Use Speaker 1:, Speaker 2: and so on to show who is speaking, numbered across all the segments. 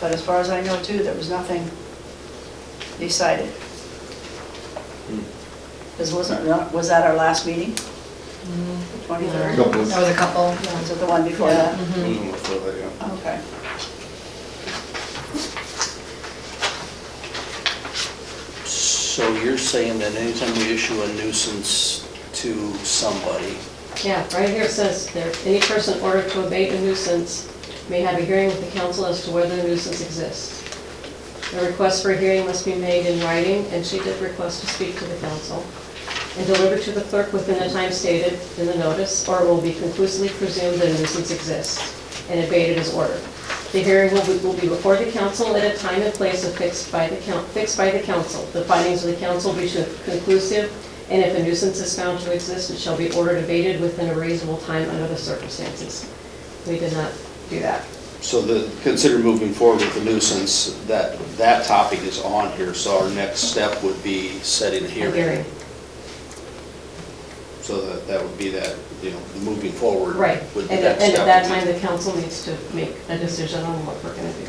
Speaker 1: But as far as I know too, there was nothing decided. This wasn't, was that our last meeting? Twenty-third?
Speaker 2: Couple.
Speaker 3: That was a couple.
Speaker 1: Was it the one before that?
Speaker 2: Mhm, for that, yeah.
Speaker 1: Okay.
Speaker 4: So you're saying that anytime we issue a nuisance to somebody,
Speaker 5: Yeah, right here it says there, any person ordered to abate a nuisance may have a hearing with the council as to whether the nuisance exists. A request for a hearing must be made in writing, and she did request to speak to the council, and delivered to the clerk within the time stated in the notice, or it will be conclusively presumed that a nuisance exists, and abated as ordered. The hearing will be, will be before the council at a time and place affixed by the coun, fixed by the council. The findings of the council will be conclusive, and if a nuisance is found to exist, it shall be ordered abated within a reasonable time under the circumstances. We did not do that.
Speaker 4: so the, consider moving forward with the nuisance, that, that topic is on here, so our next step would be setting a
Speaker 5: A
Speaker 4: hearing. So that, that would be that, you know, moving forward.
Speaker 5: Right.
Speaker 4: would
Speaker 5: And
Speaker 4: be
Speaker 5: at and
Speaker 4: step
Speaker 5: at that
Speaker 4: would be-
Speaker 5: time, the council needs to make a decision on what we're gonna do.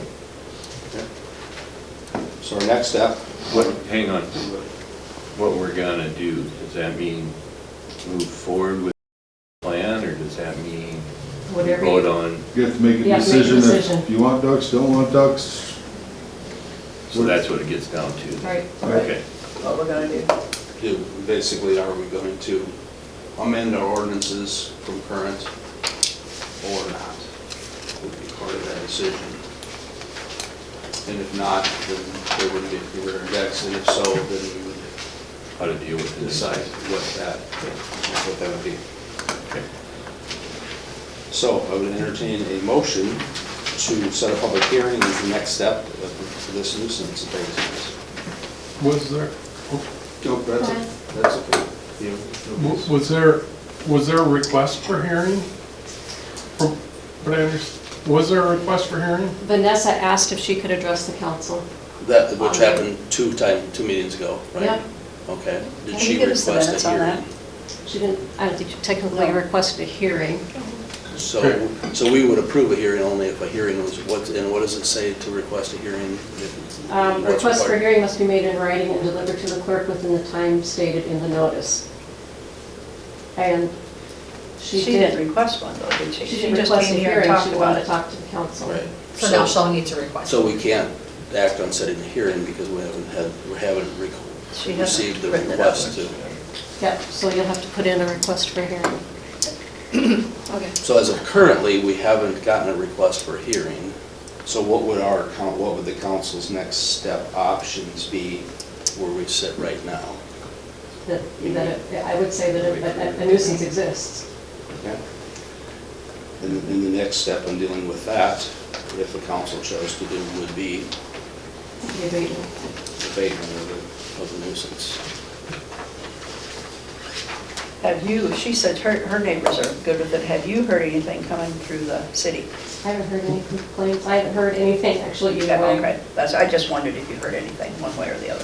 Speaker 4: So our next step,
Speaker 6: What, hang on, what we're gonna do, does that mean move forward with the plan, or does that mean we
Speaker 5: Whatever you-
Speaker 6: vote on,
Speaker 2: You have to make
Speaker 5: Yeah,
Speaker 2: a
Speaker 5: make a
Speaker 2: decision
Speaker 5: decision.
Speaker 2: if you want ducks, don't want ducks.
Speaker 6: so that's what it gets down to?
Speaker 5: Right.
Speaker 6: Okay,
Speaker 1: What we're gonna do.
Speaker 4: do, basically, are we going to amend our ordinances from current or not? Would be part of that decision. And if not, then there wouldn't be a rear index, and if so, then we would
Speaker 6: how to deal with this.
Speaker 4: decide what that, what that would be.
Speaker 6: Okay.
Speaker 4: So I would entertain a motion to set a public hearing as the next step of this nuisance abatement.
Speaker 7: Was there,
Speaker 4: Nope, that's, o- that's okay. You-
Speaker 7: w- was there, was there a request for hearing? From- But I understand, was there a request for hearing?
Speaker 5: Vanessa asked if she could address the council.
Speaker 4: That,
Speaker 1: Um,
Speaker 4: which happened two time, two meetings ago, right?
Speaker 5: Yeah.
Speaker 4: Okay. Did
Speaker 1: Can
Speaker 4: she
Speaker 1: you give us the
Speaker 4: request
Speaker 1: minutes
Speaker 4: a
Speaker 1: on
Speaker 4: hearing?
Speaker 5: She didn't, I don't think she technically
Speaker 1: No.
Speaker 5: requested a hearing.
Speaker 4: So, so we would approve a hearing only if a hearing was, what, and what does it say to request a hearing? if-
Speaker 5: Um,
Speaker 4: what's
Speaker 5: Request for
Speaker 4: required?
Speaker 5: hearing must be made in writing and delivered to the clerk within the time stated in the notice. And she
Speaker 1: She didn't
Speaker 5: did.
Speaker 1: request one though, did she?
Speaker 5: She
Speaker 1: She
Speaker 5: didn't
Speaker 1: just
Speaker 5: request a
Speaker 1: came here and
Speaker 5: hearing,
Speaker 1: talked
Speaker 5: she
Speaker 1: about
Speaker 5: wanted to
Speaker 1: it.
Speaker 5: talk to the council.
Speaker 4: Right.
Speaker 3: So now she'll need to request.
Speaker 4: So we can't act on setting a hearing because we haven't had, we haven't rec-
Speaker 1: She hasn't
Speaker 4: received the
Speaker 1: written it up.
Speaker 4: request to.
Speaker 5: Yep, so you'll have to put in a request for hearing.
Speaker 3: Okay.
Speaker 4: So as of currently, we haven't gotten a request for a hearing. So what would our, coun- what would the council's next step options be where we sit right now?
Speaker 5: That, that, it- I would say that a- a a nuisance exists.
Speaker 4: Okay. And then the next step in dealing with that, if the council chose to do, would be
Speaker 5: The abatement.
Speaker 4: abatement of the, of the nuisance.
Speaker 1: Have you, she said her, her neighbors are good with it. Have you heard anything coming through the city?
Speaker 5: I haven't heard any complaints, I haven't heard anything actually either way.
Speaker 1: Okay, that's, I just wondered if you heard anything, one way or the other.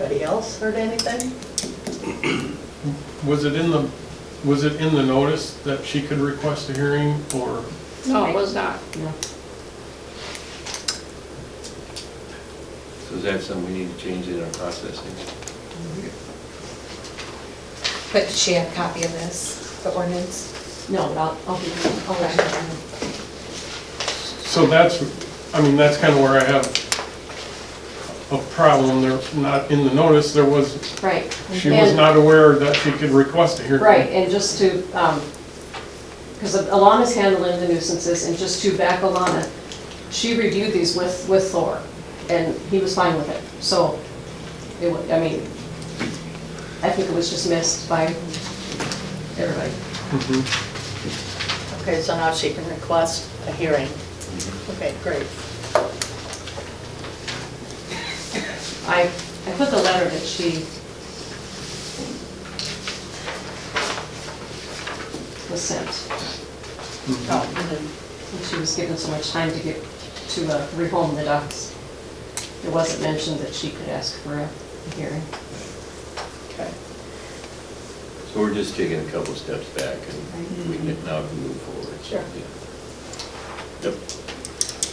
Speaker 3: Anybody else heard anything?
Speaker 7: Was it in the, was it in the notice that she could request a hearing or?
Speaker 8: No, it was not.
Speaker 5: No.
Speaker 6: So is that something we need to change in our processing?
Speaker 3: But did she have a copy of this, the ordinance?
Speaker 5: No, but I'll, I'll be, I'll let her know.
Speaker 7: So that's, I mean, that's kind of where I have a problem. There, not in the notice, there was,
Speaker 5: Right.
Speaker 7: she was
Speaker 5: And-
Speaker 7: not aware that she could request a hearing.
Speaker 5: Right, and just to, because Alana's handling the nuisances, and just to back Alana, she reviewed these with, with Thor, and he was fine with it. So, it, wa- I mean, I think it was just missed by everybody.
Speaker 7: Mhm.
Speaker 3: Okay, so now she can request a hearing. Okay, great.
Speaker 5: I, I put the letter that she was sent,
Speaker 7: mm-hmm.
Speaker 5: Oh, and she was given so much time to get, to uh, rehome the ducks. It wasn't mentioned that she could ask for a hearing.
Speaker 1: Okay.
Speaker 6: So we're just taking a couple steps back, and we can now move forward.
Speaker 3: Sure.
Speaker 6: Yeah. Yep.